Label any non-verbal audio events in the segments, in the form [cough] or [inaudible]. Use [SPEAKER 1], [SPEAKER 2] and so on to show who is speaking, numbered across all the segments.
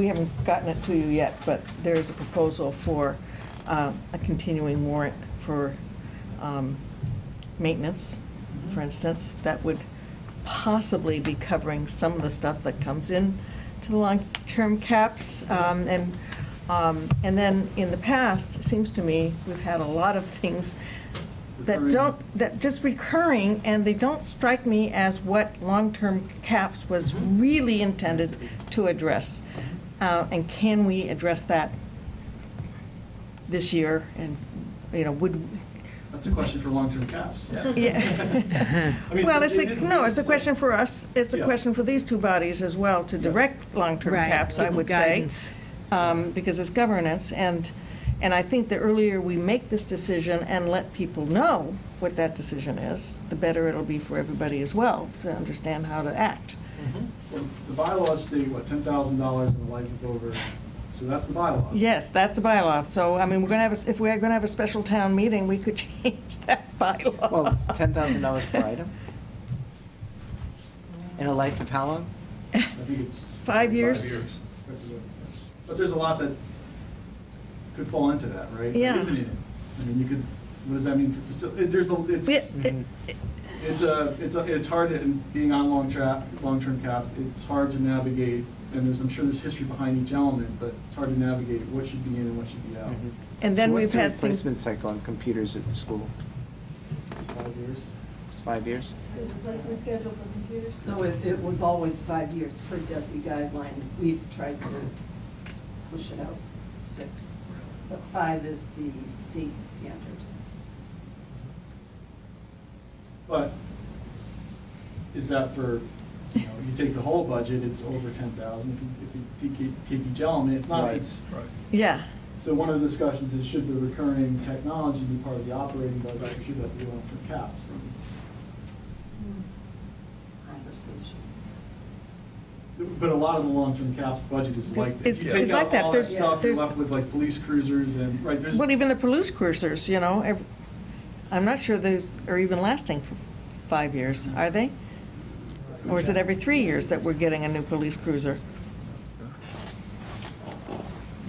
[SPEAKER 1] We haven't gotten it to you yet, but there is a proposal for uh, a continuing warrant for um, maintenance, for instance, that would possibly be covering some of the stuff that comes in to the long-term caps. Um, And, um, and then in the past, it seems to me, we've had a lot of things that
[SPEAKER 2] Recurring.
[SPEAKER 1] don't, that just recurring, and they don't strike me as what long-term caps was really intended to address. Uh, And can we address that this year? And, you know, would,
[SPEAKER 2] That's a question for long-term caps.
[SPEAKER 1] [laughs] yeah.
[SPEAKER 2] [laughs] I mean,
[SPEAKER 1] Well, it's
[SPEAKER 2] it's-
[SPEAKER 1] a,
[SPEAKER 2] it is-
[SPEAKER 1] no, it's a question for us, it's a
[SPEAKER 2] Yeah.
[SPEAKER 1] question for these two bodies as well, to
[SPEAKER 2] Yes.
[SPEAKER 1] direct long-term
[SPEAKER 3] Right,
[SPEAKER 1] caps, I
[SPEAKER 3] give
[SPEAKER 1] would say.
[SPEAKER 3] guidance.
[SPEAKER 1] um, Because it's governance, and, and I think the earlier we make this decision and let people know what that decision is, the better it'll be for everybody as well, to understand how to act.
[SPEAKER 4] Mm-hmm.
[SPEAKER 2] Well, The bylaws state, what, ten thousand dollars in the life of over, so that's the bylaws.
[SPEAKER 1] Yes, that's the bylaw, so, I mean, we're gonna have, a- if we're gonna have a special town meeting, we could [laughs] change that bylaw.
[SPEAKER 4] Well, it's ten thousand dollars per item? In a life of how long?
[SPEAKER 2] I think it's.
[SPEAKER 1] Five years.
[SPEAKER 2] Expected. But there's a lot that could fall into that, right?
[SPEAKER 1] Yeah.
[SPEAKER 2] Isn't it? I mean, you could, what does that mean for facility, there's a, it's.
[SPEAKER 1] It- it-
[SPEAKER 4] mm-hmm.
[SPEAKER 2] It's uh, a, it's a, it's hard, and being on long trap, long-term caps, it's hard to navigate, and there's, I'm sure there's history behind each element, but it's hard to navigate what should be in and what should be out.
[SPEAKER 1] And then
[SPEAKER 4] Mm-hmm. So
[SPEAKER 1] we've had
[SPEAKER 4] What's the
[SPEAKER 1] things.
[SPEAKER 4] replacement cycle on computers at the school?
[SPEAKER 2] It's five years.
[SPEAKER 4] It's five years?
[SPEAKER 5] So the placement schedule for computers?
[SPEAKER 6] So it, it was always five years per DESI guideline. We've tried to push it out six, but five is the state standard.
[SPEAKER 2] But is that for, you know, you take the whole budget, it's over ten thousand, if you, if you take, e- take each element, it's not,
[SPEAKER 4] Right.
[SPEAKER 2] it's.
[SPEAKER 1] Yeah,
[SPEAKER 2] So one of the discussions is should the recurring technology be part of the operating budget, or should that be long-term caps? And
[SPEAKER 6] Conversation.
[SPEAKER 2] But a lot of the long-term caps budget is like that.
[SPEAKER 1] It's-
[SPEAKER 2] You take
[SPEAKER 6] it's
[SPEAKER 2] out
[SPEAKER 6] like that.
[SPEAKER 2] all
[SPEAKER 6] There's-
[SPEAKER 2] stuff, you're
[SPEAKER 1] there's-
[SPEAKER 2] left with like police cruisers and, right, there's.
[SPEAKER 1] well, even the police cruisers, you know, ev- I'm not sure those are even lasting for five years, are they? Or is it every three years that we're getting a new police cruiser?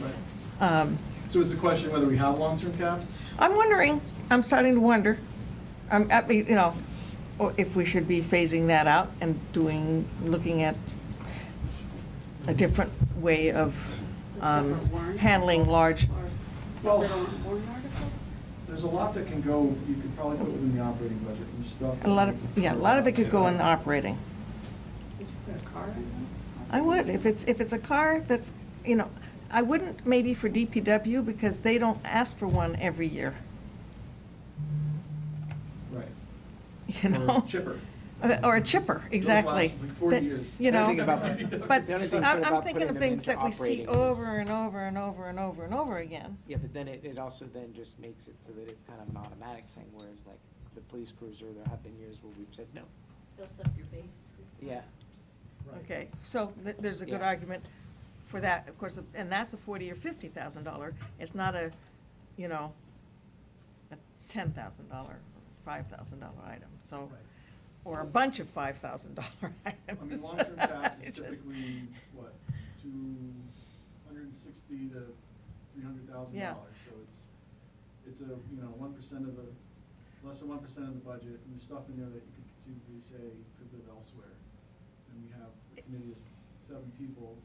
[SPEAKER 2] Right.
[SPEAKER 1] Um,
[SPEAKER 2] So it's a question whether we have long-term caps?
[SPEAKER 1] I'm wondering, I'm starting to wonder, I'm, I mean, you know, or if we should be phasing that out and doing, looking at a different way of um,
[SPEAKER 7] Different warrant?
[SPEAKER 1] handling large,
[SPEAKER 7] Or
[SPEAKER 2] Well-
[SPEAKER 7] separate on warrant articles?
[SPEAKER 2] There's a lot that can go, you could probably put within the operating budget and stuff.
[SPEAKER 1] a lot of, yeah, a lot of it could go in operating.
[SPEAKER 7] Would you put a car in them?
[SPEAKER 1] I would, if it's, if it's a car that's, you know, I wouldn't maybe for DPW because they don't ask for one every year,
[SPEAKER 2] Right.
[SPEAKER 1] [laughs] you
[SPEAKER 2] Or
[SPEAKER 1] know? Uh,
[SPEAKER 2] chipper.
[SPEAKER 1] Or a chipper, exactly.
[SPEAKER 2] last, like, 40
[SPEAKER 1] That-
[SPEAKER 2] years.
[SPEAKER 1] You
[SPEAKER 4] The
[SPEAKER 1] know?
[SPEAKER 4] only thing
[SPEAKER 2] [laughs]
[SPEAKER 4] about-
[SPEAKER 1] But
[SPEAKER 4] the only thing
[SPEAKER 1] I'm,
[SPEAKER 4] good
[SPEAKER 1] I'm
[SPEAKER 4] about
[SPEAKER 1] thinking
[SPEAKER 4] putting
[SPEAKER 1] of
[SPEAKER 4] them
[SPEAKER 1] things
[SPEAKER 4] into
[SPEAKER 1] that we see
[SPEAKER 4] operating is-
[SPEAKER 1] over and over and over and over and over again.
[SPEAKER 4] Yeah, but then it, it also then just makes it so that it's kind of an automatic thing, whereas like the police cruiser, there have been years where we've said no.
[SPEAKER 7] Builds up your base.
[SPEAKER 4] Yeah.
[SPEAKER 1] Okay, so th- there's a good
[SPEAKER 4] Yeah.
[SPEAKER 1] argument for that, of course, and that's a forty or fifty thousand dollar. It's not a, you know, a ten thousand dollar, five thousand dollar item, so, or a bunch of five thousand dollar [laughs] items.
[SPEAKER 2] I mean, long-term caps
[SPEAKER 1] [laughs]
[SPEAKER 2] is
[SPEAKER 1] It's just-
[SPEAKER 2] typically, what, two hundred and sixty to three hundred thousand
[SPEAKER 1] Yeah.
[SPEAKER 2] dollars, so it's, it's a, you know, one percent of the, less than one percent of the budget, and there's stuff in there that you could conceivably say could live elsewhere. And we have a committee of seven people,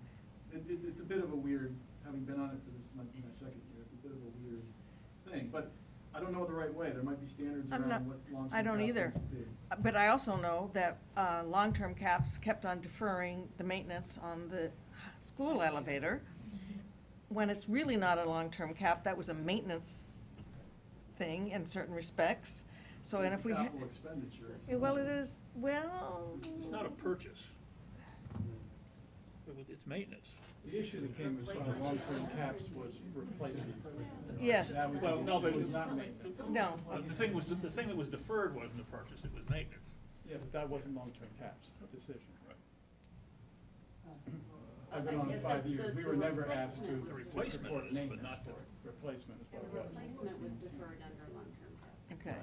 [SPEAKER 2] it, it, it's a bit of a weird, having been on it for this, might be my second year, it's a bit of a weird thing, but I don't know the right way, there might be standards
[SPEAKER 1] I'm not-
[SPEAKER 2] around what long-term
[SPEAKER 1] I don't
[SPEAKER 2] caps
[SPEAKER 1] either.
[SPEAKER 2] needs to be.
[SPEAKER 1] But I also know that uh, long-term caps kept on deferring the maintenance on the school elevator. When it's really not a long-term cap, that was a maintenance thing in certain respects. So, and
[SPEAKER 2] It's
[SPEAKER 1] if we, ha-
[SPEAKER 2] Capital expenditure. it's
[SPEAKER 1] Yeah, well,
[SPEAKER 2] not-
[SPEAKER 1] it is, well.
[SPEAKER 8] It's not a purchase, It- it's maintenance.
[SPEAKER 9] The issue that came as far as long-term caps was replacement.
[SPEAKER 1] Yes.
[SPEAKER 9] That was
[SPEAKER 8] Well,
[SPEAKER 9] the
[SPEAKER 8] no, but
[SPEAKER 9] issue.
[SPEAKER 8] it was
[SPEAKER 9] not
[SPEAKER 1] No.
[SPEAKER 8] Uh, The thing was, the thing that was deferred wasn't a purchase, it was maintenance.
[SPEAKER 9] Yeah, but that wasn't long-term caps decision.
[SPEAKER 7] I
[SPEAKER 9] I've been on
[SPEAKER 7] Uh, guess
[SPEAKER 9] five
[SPEAKER 7] the-
[SPEAKER 9] years.
[SPEAKER 7] the-
[SPEAKER 9] We
[SPEAKER 7] the
[SPEAKER 9] were never asked to.
[SPEAKER 7] replacement was
[SPEAKER 9] to
[SPEAKER 8] The replacement
[SPEAKER 9] support
[SPEAKER 8] is, but
[SPEAKER 9] maintenance
[SPEAKER 8] not
[SPEAKER 9] for
[SPEAKER 8] the-
[SPEAKER 9] it. Replacement is
[SPEAKER 7] And
[SPEAKER 9] what
[SPEAKER 7] the
[SPEAKER 9] it was.
[SPEAKER 7] replacement was deferred under long-term caps.
[SPEAKER 1] Okay,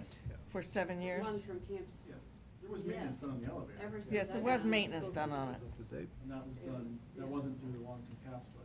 [SPEAKER 1] for seven years.
[SPEAKER 7] Long-term camps.
[SPEAKER 2] Yeah, there was maintenance done on the elevator.
[SPEAKER 7] Ever since
[SPEAKER 1] Yes, there
[SPEAKER 7] I've
[SPEAKER 1] was
[SPEAKER 7] been on the
[SPEAKER 1] maintenance
[SPEAKER 7] school
[SPEAKER 1] done on
[SPEAKER 7] committee.
[SPEAKER 1] it.
[SPEAKER 2] And that was done, that wasn't through the long-term caps, but